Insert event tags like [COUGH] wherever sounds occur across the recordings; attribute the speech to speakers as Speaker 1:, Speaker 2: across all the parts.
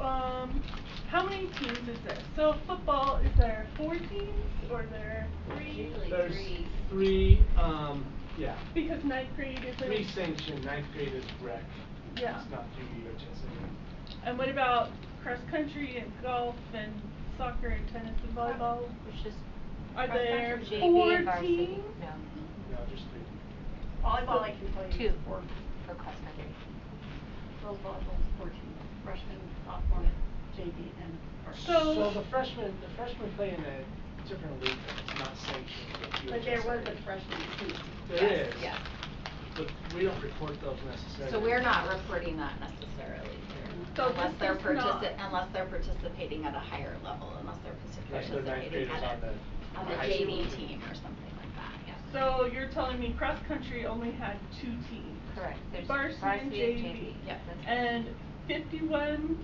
Speaker 1: Um, how many teams is there? So football, is there four teams or there three?
Speaker 2: Usually
Speaker 3: There's
Speaker 2: three.
Speaker 3: three, um, yeah,
Speaker 1: Because ninth grade is a.
Speaker 3: three sanctioned, ninth grade is rec.
Speaker 1: Yeah.
Speaker 3: It's not PE or chess anymore.
Speaker 1: And what about cross country and golf and soccer and tennis and volleyball?
Speaker 2: It's just.
Speaker 1: Are
Speaker 2: cross-country,
Speaker 1: there
Speaker 2: JV,
Speaker 1: four
Speaker 2: and varsity.
Speaker 1: teams?
Speaker 2: No,
Speaker 3: No, just three.
Speaker 4: Volleyball, I can tell you. is
Speaker 2: Two.
Speaker 4: Four.
Speaker 2: for cross country.
Speaker 4: Girls volleyball is four teams, freshman, sophomore, JV, and varsity.
Speaker 1: So-
Speaker 3: the freshmen, the freshmen play in a different league that's not sanctioned. but PE or
Speaker 4: But there
Speaker 3: chess
Speaker 4: was
Speaker 3: anymore.
Speaker 4: a freshman team.
Speaker 3: There
Speaker 2: Yes,
Speaker 3: is.
Speaker 2: yes.
Speaker 3: But we don't report those necessarily.
Speaker 2: So we're not reporting that necessarily
Speaker 1: So
Speaker 2: here, unless
Speaker 1: this
Speaker 2: they're
Speaker 1: is not-
Speaker 2: partici- unless they're participating at a higher level, unless they're partic-
Speaker 3: Like the ninth
Speaker 2: participating
Speaker 3: graders
Speaker 2: at
Speaker 3: on the-
Speaker 2: a, on
Speaker 3: the
Speaker 2: the
Speaker 3: high
Speaker 2: JV
Speaker 3: school.
Speaker 2: team or something like that, yeah.
Speaker 1: So you're telling me cross country only had two teams?
Speaker 2: Correct, there's
Speaker 1: Varsity and JV.
Speaker 2: Yep, that's.
Speaker 1: And fifty-one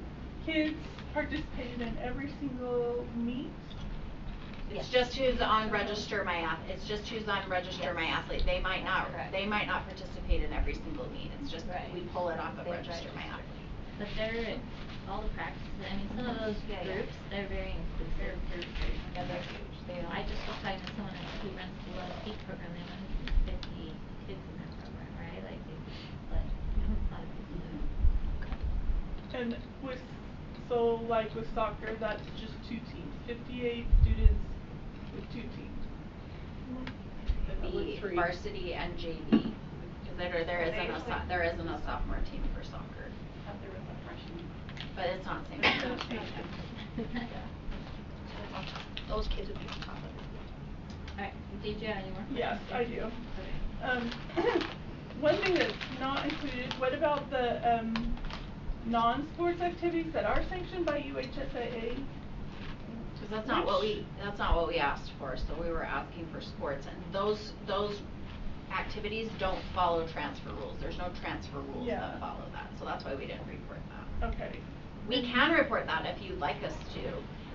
Speaker 1: kids participated in every single meet?
Speaker 2: It's just who's on register my ath, it's just who's on register my athlete, they might not,
Speaker 5: Correct.
Speaker 2: they might not participate in every single meet, it's just
Speaker 5: Right.
Speaker 2: we pull it off of
Speaker 5: They
Speaker 2: register my
Speaker 5: register.
Speaker 2: athlete.
Speaker 5: But they're, all the practices, I mean, some of those
Speaker 2: Yeah, yeah.
Speaker 5: groups, they're very inclusive.
Speaker 2: Yeah, they're huge, they
Speaker 5: I
Speaker 2: don't-
Speaker 5: just was talking to someone else who runs the Love Peak program, they have fifty kids in that program, right? Like, they split a lot of people.
Speaker 1: And with, so like with soccer, that's just two teams, fifty-eight students with two teams.
Speaker 4: That was
Speaker 2: the
Speaker 4: three.
Speaker 2: varsity and JV, cause there, there
Speaker 4: They
Speaker 2: isn't a, so-
Speaker 4: usually-
Speaker 2: there isn't a sophomore team for soccer,
Speaker 4: Thought there was a freshman.
Speaker 2: but it's not the same.
Speaker 4: There's
Speaker 2: thing.
Speaker 4: no station.
Speaker 2: Those kids would be on top of it.
Speaker 5: Alright, did you have any more questions?
Speaker 1: Yes, I do.
Speaker 5: Okay.
Speaker 1: Um, [CLEARS THROAT] one thing that's not included, what about the, um, non-sports activities that are sanctioned by UHSAA?
Speaker 2: Cause that's not what
Speaker 1: Which-
Speaker 2: we, that's not what we asked for, so we were asking for sports, and those, those activities don't follow transfer rules, there's no transfer rules
Speaker 1: Yeah.
Speaker 2: that follow that, so that's why we didn't report that.
Speaker 1: Okay,
Speaker 2: We can report that if you'd like us to,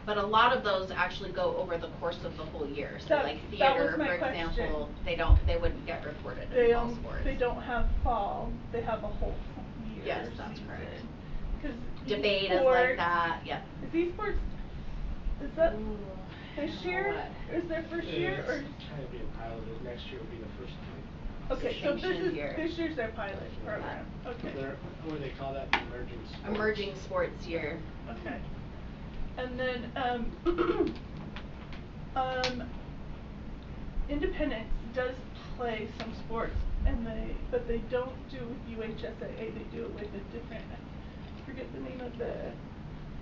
Speaker 2: but a lot of those actually go over the course of the whole year, so
Speaker 1: That-
Speaker 2: like
Speaker 1: that was
Speaker 2: theater,
Speaker 1: my
Speaker 2: for
Speaker 1: question.
Speaker 2: example, they don't, they wouldn't get reported
Speaker 1: they,
Speaker 2: in all
Speaker 1: um,
Speaker 2: sports.
Speaker 1: they don't have fall, they have a whole year
Speaker 2: Yes, that's
Speaker 1: season.
Speaker 2: correct.
Speaker 1: 'Cause
Speaker 2: Debate is like
Speaker 1: esports-
Speaker 2: that, yeah.
Speaker 1: Is esports, is that this year,
Speaker 2: What?
Speaker 1: is their first year, or?
Speaker 3: It's kind of being piloted, next year will be the first time.
Speaker 1: Okay, so this
Speaker 2: Distinction
Speaker 1: is,
Speaker 2: year.
Speaker 1: this year's their pilot program, okay.
Speaker 3: They're, what do they call that, emerging sports?
Speaker 2: Emerging sports year.
Speaker 1: Okay. And then, um, [CLEARS THROAT] um, Independence does play some sports and they, but they don't do it with UHSAA, they do it with a different, I forget the name of the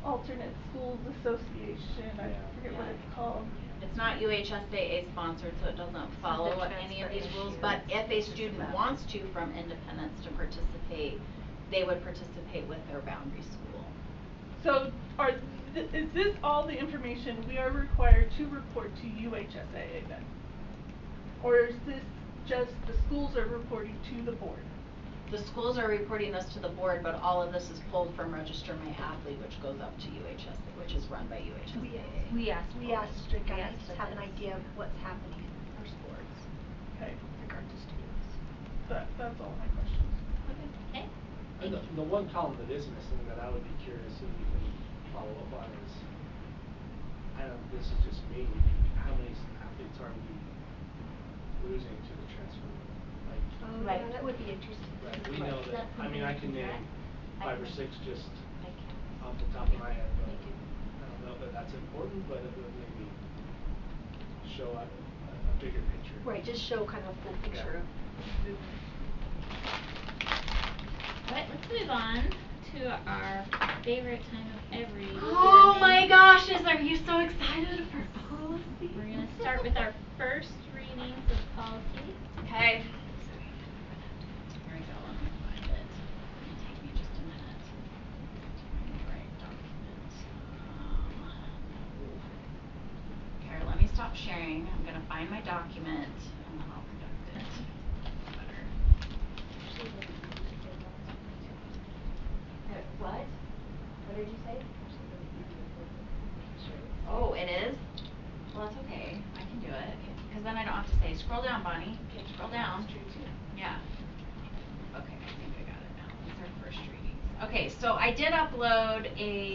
Speaker 1: alternate schools association, I
Speaker 3: Yeah.
Speaker 1: forget what
Speaker 2: Yeah.
Speaker 1: it's called.
Speaker 2: It's not UHSAA sponsored, so it doesn't follow
Speaker 5: the
Speaker 2: any of
Speaker 5: transfer
Speaker 2: these rules,
Speaker 5: issue.
Speaker 2: but if a
Speaker 5: It's just
Speaker 2: student
Speaker 5: about-
Speaker 2: wants to from Independence to participate, they would participate with their boundary school.
Speaker 1: So are, th- is this all the information we are required to report to UHSAA then? Or is this just the schools are reporting to the board?
Speaker 2: The schools are reporting this to the board, but all of this is pulled from Register My Athlete, which goes up to UHSAA, which is run by UHSAA.
Speaker 5: We asked.
Speaker 6: We asked to
Speaker 5: We
Speaker 6: guys
Speaker 5: asked
Speaker 6: just
Speaker 5: for
Speaker 6: have an
Speaker 5: this.
Speaker 6: idea of what's happening in our sports
Speaker 1: Okay.
Speaker 6: in regard to students.
Speaker 1: That, that's all my questions.
Speaker 5: Okay.
Speaker 3: And The, the one column that is missing that I would be curious if you can follow up on is, I don't, this is just me, how many s- athletes are we losing to the transfer? rule? Like,
Speaker 6: Oh,
Speaker 2: Right.
Speaker 6: yeah, that would be interesting.
Speaker 3: right, we know that,
Speaker 5: That's
Speaker 3: I mean, I
Speaker 5: something
Speaker 3: can
Speaker 5: we can
Speaker 3: name
Speaker 5: I
Speaker 3: five or
Speaker 5: can-
Speaker 3: six just
Speaker 5: I can-
Speaker 3: off the top of my head, but
Speaker 5: We can-
Speaker 3: I don't know that that's important, but it would maybe show a, a bigger picture.
Speaker 6: Right, just show kind of a full picture of
Speaker 5: Alright, let's move on to our favorite time of every.
Speaker 2: Oh
Speaker 5: morning.
Speaker 2: my gosh, is, are you so excited for policy?
Speaker 5: We're gonna start with our first readings of policies.
Speaker 2: Okay. Here we go, let me find it. It'll take me just a minute. Right document. Um, Okay, let me stop sharing. I'm gonna find my document and then I'll conduct it better.
Speaker 6: what? What did you say?
Speaker 2: Oh, it is? Well, that's okay. I can do it. Cause then I don't have to say, scroll down, Bonnie. Scroll down. Yeah. Okay, I think I got it now. These are first readings. Okay, so I did upload a